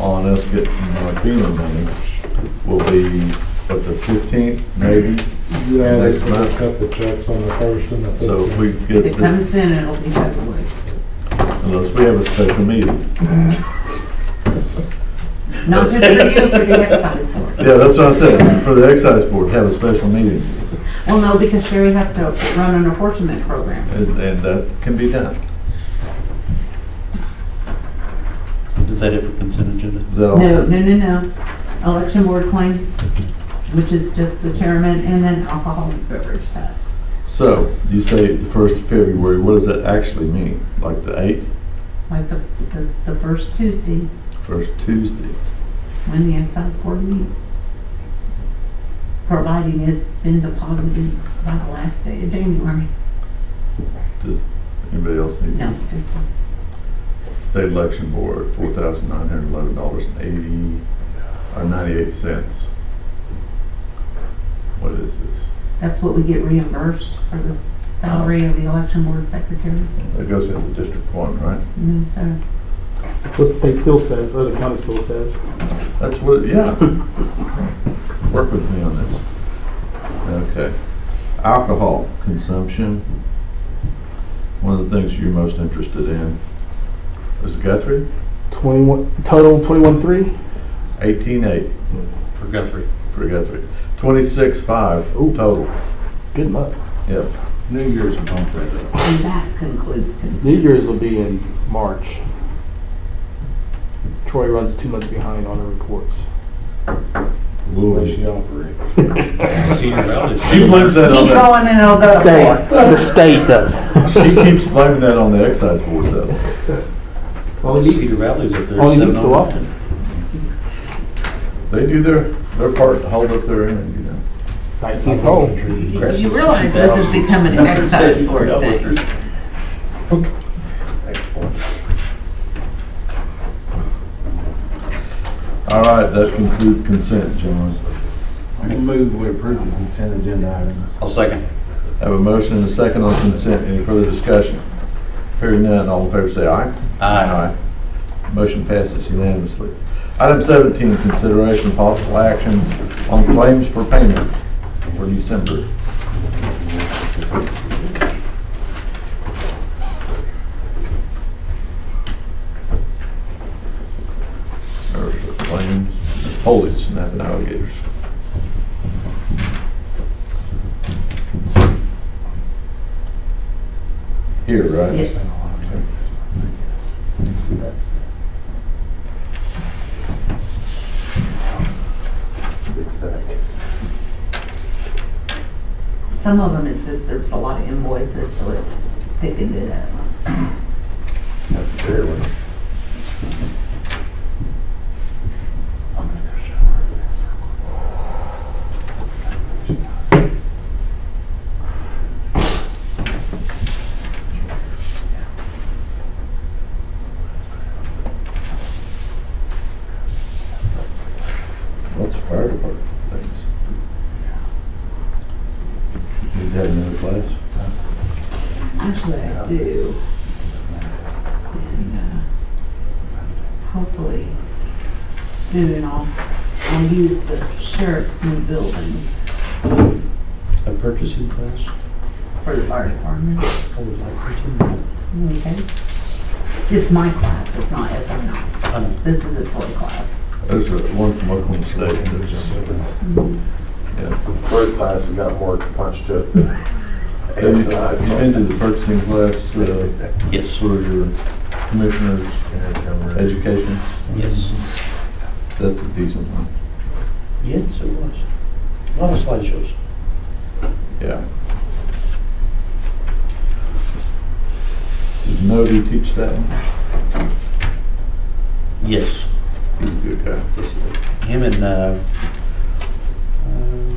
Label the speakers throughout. Speaker 1: on us getting our FEMA money will be, what, the fifteenth, maybe?
Speaker 2: Yeah, they
Speaker 1: Next
Speaker 2: said
Speaker 1: month.
Speaker 2: they cut the checks on the first and the
Speaker 1: So if we
Speaker 2: fifteenth.
Speaker 1: get,
Speaker 3: It
Speaker 1: the-
Speaker 3: comes then and it'll be February.
Speaker 1: unless we have a special meeting.
Speaker 3: Not just for you, for the excise board.
Speaker 1: Yeah, that's what I said, for the excise board, have a special meeting,
Speaker 3: Well, no, because Sherry has to run an enforcement program.
Speaker 1: and, and that can be done.
Speaker 4: Is that it for consent agenda?
Speaker 1: Is that all?
Speaker 3: No, no, no, no. Election board claim, which is just the chairman, and then alcoholic beverage tax.
Speaker 1: So, you say the first of February, what does that actually mean? Like the eighth,
Speaker 3: Like the, the, the first Tuesday
Speaker 1: first Tuesday?
Speaker 3: when the excise board meets. Providing it's been deposited by the last day of January.
Speaker 1: Does anybody else need?
Speaker 3: No, just,
Speaker 1: State election board, four thousand nine hundred eleven dollars and eighty, or ninety-eight cents. What is this?
Speaker 3: that's what we get reimbursed for the salary of the election board secretary.
Speaker 1: That goes into District One, right?
Speaker 3: No, sir.
Speaker 5: That's what the state still says, or the county still says.
Speaker 1: That's what, yeah. Work with me on this. Okay. Alcohol consumption. One of the things you're most interested in is Guthrie,
Speaker 5: Twenty-one, total twenty-one-three?
Speaker 1: eighteen-eight
Speaker 4: For Guthrie.
Speaker 1: for Guthrie, twenty-six-five total.
Speaker 5: Good month.
Speaker 1: Yep.
Speaker 4: New Year's bump right up.
Speaker 3: And that concludes consent.
Speaker 5: New Year's will be in March. Troy runs two months behind on her reports.
Speaker 2: That's the way she operates.
Speaker 4: Senior Valley.
Speaker 1: She blames that on
Speaker 3: Keep
Speaker 1: that.
Speaker 3: going and it'll go to court.
Speaker 5: State, the state does.
Speaker 1: She keeps blaming that on the excise board though.
Speaker 5: Well, he-
Speaker 4: Cedar Valley's up there.
Speaker 5: Only
Speaker 4: seven
Speaker 5: meets so
Speaker 4: on-
Speaker 5: often.
Speaker 1: They do their, their part to hold up their end, you know.
Speaker 5: Nineteenth hole.
Speaker 3: You realize this has become an excise board thing.
Speaker 1: All right, that concludes consent, gentlemen.
Speaker 2: I can move we approve the consent agenda items.
Speaker 4: I'll second.
Speaker 1: Have a motion and a second on consent. Any further discussion? Hearing none, all in favor say aye.
Speaker 4: Aye.
Speaker 1: Motion passes unanimously. Item seventeen, consideration of possible action on claims for payment for December. There's the claims, holy snapping alligators. Here, right?
Speaker 3: Yes. Some of them, it's just there's a lot of invoices, so it thickened it up.
Speaker 1: That's a fair one. Lots of fire department things. Need to have another class?
Speaker 3: Actually, I do. And uh, Hopefully, soon I'll, I'll use the sheriff's new building
Speaker 4: A purchasing class?
Speaker 3: for the fire department.
Speaker 4: I would like to.
Speaker 3: Okay? It's my class, it's not SM nine.
Speaker 4: I know.
Speaker 3: This is a toy class.
Speaker 1: There's a- one from Oklahoma State.
Speaker 4: Mm-hmm.
Speaker 1: Yeah.
Speaker 6: First class has got more punch to it than
Speaker 1: Have you
Speaker 6: eighth class.
Speaker 1: have you been to the purchasing class uh,
Speaker 4: Yes,
Speaker 1: for your commissioner's education?
Speaker 4: yes.
Speaker 1: That's a decent one.
Speaker 4: Yes, it was. A lot of slideshows.
Speaker 1: Yeah. Does Nody teach that one?
Speaker 4: Yes.
Speaker 1: He's a good guy.
Speaker 4: yes, it was. Him and, uh, uh,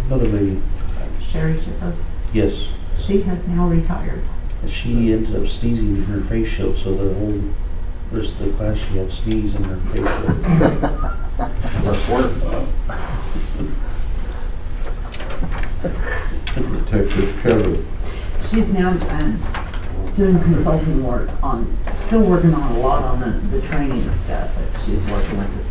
Speaker 4: another lady.
Speaker 3: Sherry Shipper,
Speaker 4: Yes.
Speaker 3: she has now retired.
Speaker 4: She ended up sneezing in her face shield, so the whole rest of the class, she had sneeze in her face shield.
Speaker 6: Much work.
Speaker 1: Protective cover.
Speaker 3: She's now um, doing consulting work on, still working on a lot on the, the training stuff, but she's working with the